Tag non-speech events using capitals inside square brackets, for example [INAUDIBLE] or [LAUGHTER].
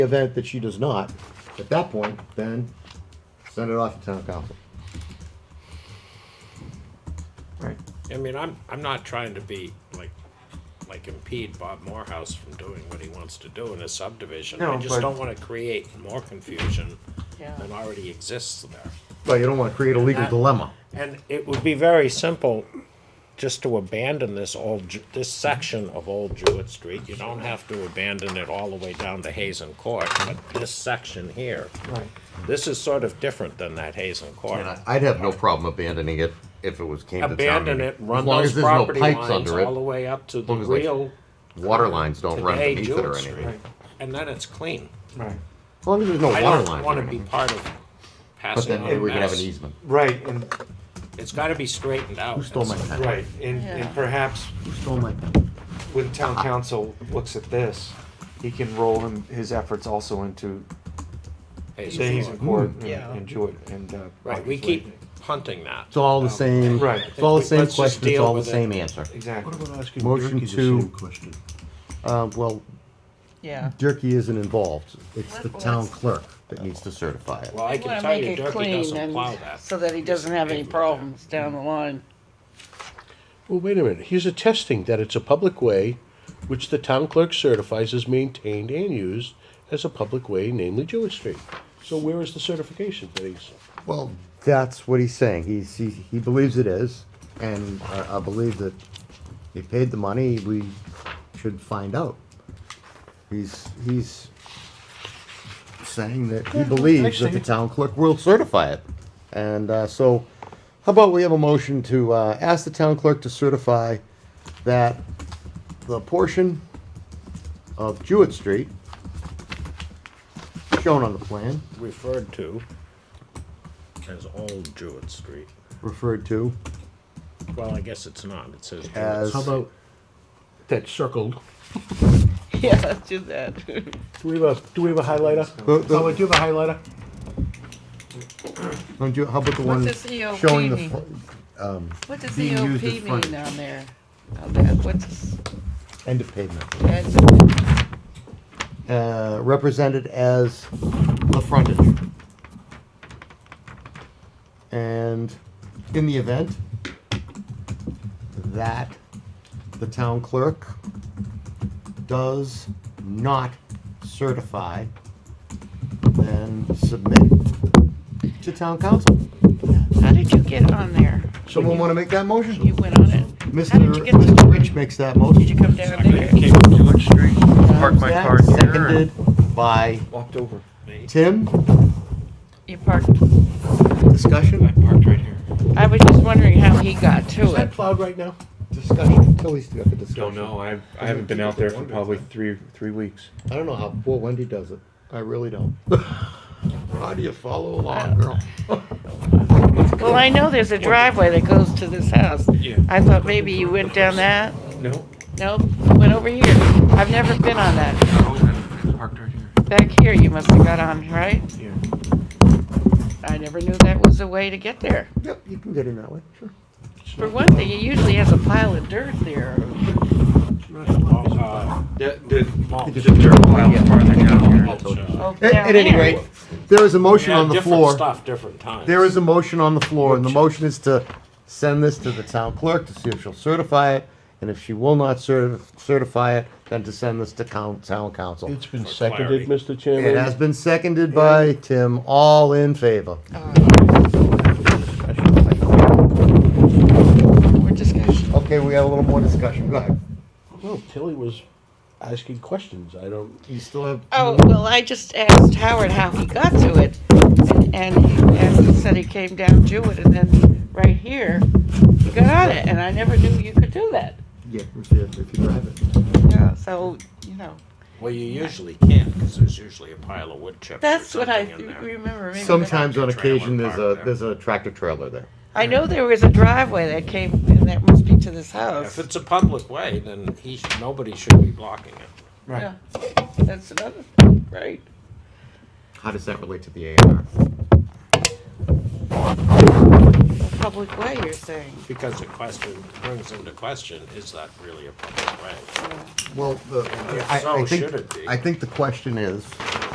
event that she does not, at that point, then send it off to town council. Right. I mean, I'm, I'm not trying to be like, like impede Bob Morehouse from doing what he wants to do in a subdivision. I No, just but- don't wanna create more confusion Yeah. than already exists there. Well, you don't wanna create a legal dilemma. And it would be very simple just to abandon this old, Ju- this section of Old Jewett Street. You don't have to abandon it all the way down to Hazen Court, but this section here, Right. this is sort of different than that Hazen Court. And I- I'd have no problem abandoning it if it was came to town. Abandon meeting. it, run As long those as there's no property pipes lines under all the it, way up to the long as they- real, Water lines don't run Hey, beneath it or Jewett anything. Street. And then it's clean. Right. As long as there's no I water don't lines want or to be anything. part of But passing then on maybe a we could have an mess. easement. Right, and, It's got to be straightened out. Who stole my pen? right, and, Yeah. and perhaps Who stole my pen? when town council looks at this, he can roll him, his efforts also into That's- the Hazen Court and- Yeah. and Jewett and, uh. Right, we obviously- keep hunting that. It's all the same, Right. it's all the same Let's just question, it's deal all the with it. same answer. Exactly. What about asking Motion Ricky the to- same question? Uh, well, Yeah. Durkey isn't involved, it's the Well, town that's- clerk that needs to certify it. Well, I You can wanna tell make you it Durkey clean doesn't plow and, that. so that he doesn't have any problems down the line. [LAUGHS] Well, wait a minute, he's attesting that it's a public way, which the town clerk certifies is maintained and used as a public way, namely Jewett Street. So where is the certification that he's? Well, that's what he's saying. He's, he, he believes it is, and I, I believe that he paid the money, we should find out. He's, he's saying that he believes that the town clerk will certify it. And, uh, so, how about we have a motion to, uh, ask the town clerk to certify that the portion of Jewett Street shown on the plan Referred to as Old Jewett Street. referred to Well, I guess it's not, it says Jewett. as. How about that circled? Yeah, let's do that. Do we have a, do we have a highlighter? The- the- Howard, do you have a highlighter? Don't you, how about the What one does EOP showing the, mean? fo- What does Being EOP used as mean frontage. down there? Down there, Oh, What's, end of pavement, that's, uh, represented as the frontage? And in the event that the town clerk does not certify, then submit to town council. how did you get on there? Someone wanna make that You motion? went on it. How did Mr. you get to- Mr. Rich makes that motion. Did you come down there? Came up Jewett Street, parked my Zach, car here. and- Seconded by Walked over. Tim, You parked, discussion? Parked right here. I was just wondering how he got to Is that it. plowed right now? Discussion, Tilly's got the discussion. Don't know, I, I haven't been out there for probably three, three weeks. I don't know how poor Wendy does it, I really [LAUGHS] don't. How do you follow along, girl? Well, I know there's a driveway that goes to this house. Yeah. I thought maybe you went down that. No. Nope, went over here. I've never been on that. Parked right here. Back here, you must have got on, right? Yeah. I never knew that was a way to get there. Yep, you can get in that way, sure. For one thing, it usually has a pile of dirt there. Uh, That, that, mulch. just a while farther down here. Mulch, uh, Oh, At, down at any there. rate, there is a motion yeah, on the different floor. Stuff, different times. There is a motion on the floor, and the motion is to send this to the town clerk to see if she'll certify it, and if she will not cer- certify it, then to send this to coun- town council. It's been For seconded, Mr. Chairman. It has been seconded by Tim, all in favor. More discussion. Okay, we have a little more discussion, go ahead. Well, Tilly was asking questions, I don't. You still have, Oh, well, I just asked Howard how he got to it, and, and he- and he said he came down Jewett, and then right here, he got on it, and I never knew you could do that. yeah, if you, if you drive it. Yeah, so, you know, Well, you usually can't, because there's usually a pile of wood chips or that's what I something in there. remember. maybe that- Sometimes on Trailer occasion, there's park a, there. there's a tractor trailer there. I know there was a driveway that came, and that must be to this house. If it's a public way, then he, sh- nobody should be blocking it. Yeah, That's another, thing, right. How does that relate to the A and R? Public way, you're saying. Because the question brings into question, is that really a public way? Well, the, If I, I so, think, should it be? I think the question is,